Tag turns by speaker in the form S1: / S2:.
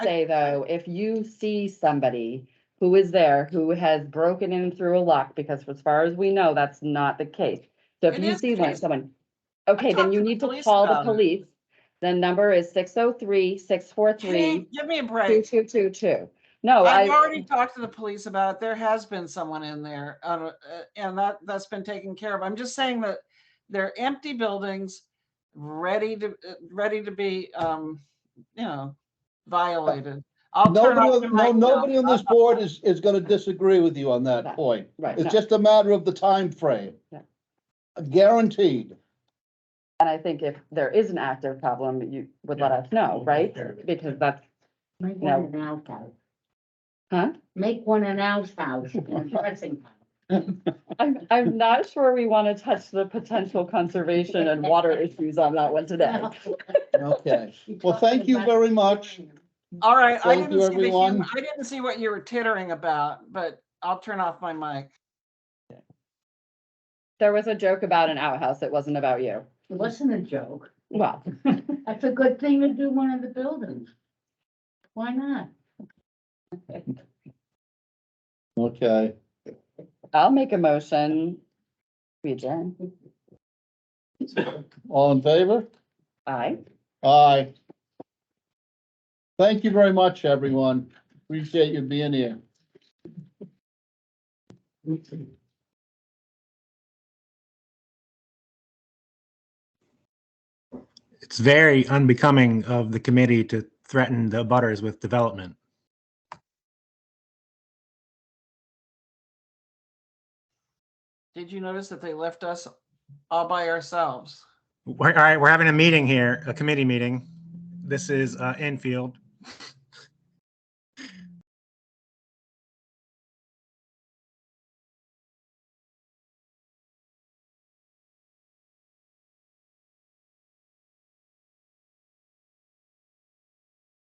S1: say though, if you see somebody who is there, who has broken in through a lock, because as far as we know, that's not the case. So if
S2: It
S1: you
S2: is
S1: see
S2: the
S1: one,
S2: case.
S1: someone, okay,
S2: talked
S1: then you
S2: to the
S1: need to
S2: police
S1: call the
S2: about it.
S1: police. The number is 603-643-2222.
S2: Hey, Give me a break.
S1: No,
S2: I've
S1: Oh, I,
S2: already talked to the police about, it. there has been someone in there, uh, uh, and that, that's been taken care of. I'm just saying that they're empty buildings, ready to, uh, ready to be, um, you know, violated. I'll turn
S3: Nobody,
S2: off the
S3: on- no,
S2: mic now.
S3: nobody on this board is, is gonna disagree with you on
S1: No.
S3: that point.
S1: right, no.
S3: It's just a matter of the time frame.
S1: Yeah.
S3: Guaranteed.
S1: and I think if there is an active problem, you would let us know,
S4: We'll take
S1: right?
S4: care of it.
S1: Because that's,
S5: Make
S1: No.
S5: one an outhouse.
S1: Huh?
S5: Make one an outhouse and dressing. house.
S1: I'm, I'm not sure we want to touch the potential conservation and water issues on that one today.
S3: Okay.
S5: You're
S3: Well, thank you
S5: talking about-
S3: very much.
S2: All right, I
S3: Thank
S2: didn't
S3: you,
S2: see the, hum-
S3: everyone.
S2: I didn't see what you were tittering about, but I'll turn off my mic.
S1: There was a joke about an outhouse. It wasn't about you.
S5: It wasn't a joke.
S1: Well,
S5: That's a good thing to do in one of the buildings. Why not?
S3: Okay.
S1: I'll make a motion. We adjourn.
S3: All in favor?
S1: Aye.
S3: Aye. Thank you very much, everyone. Appreciate you being here.
S6: It's very unbecoming of the committee to threaten the butters with development.
S2: Did you notice that they left us all by ourselves?
S6: We're, all right, we're having a meeting here, a committee meeting. This is uh, Enfield.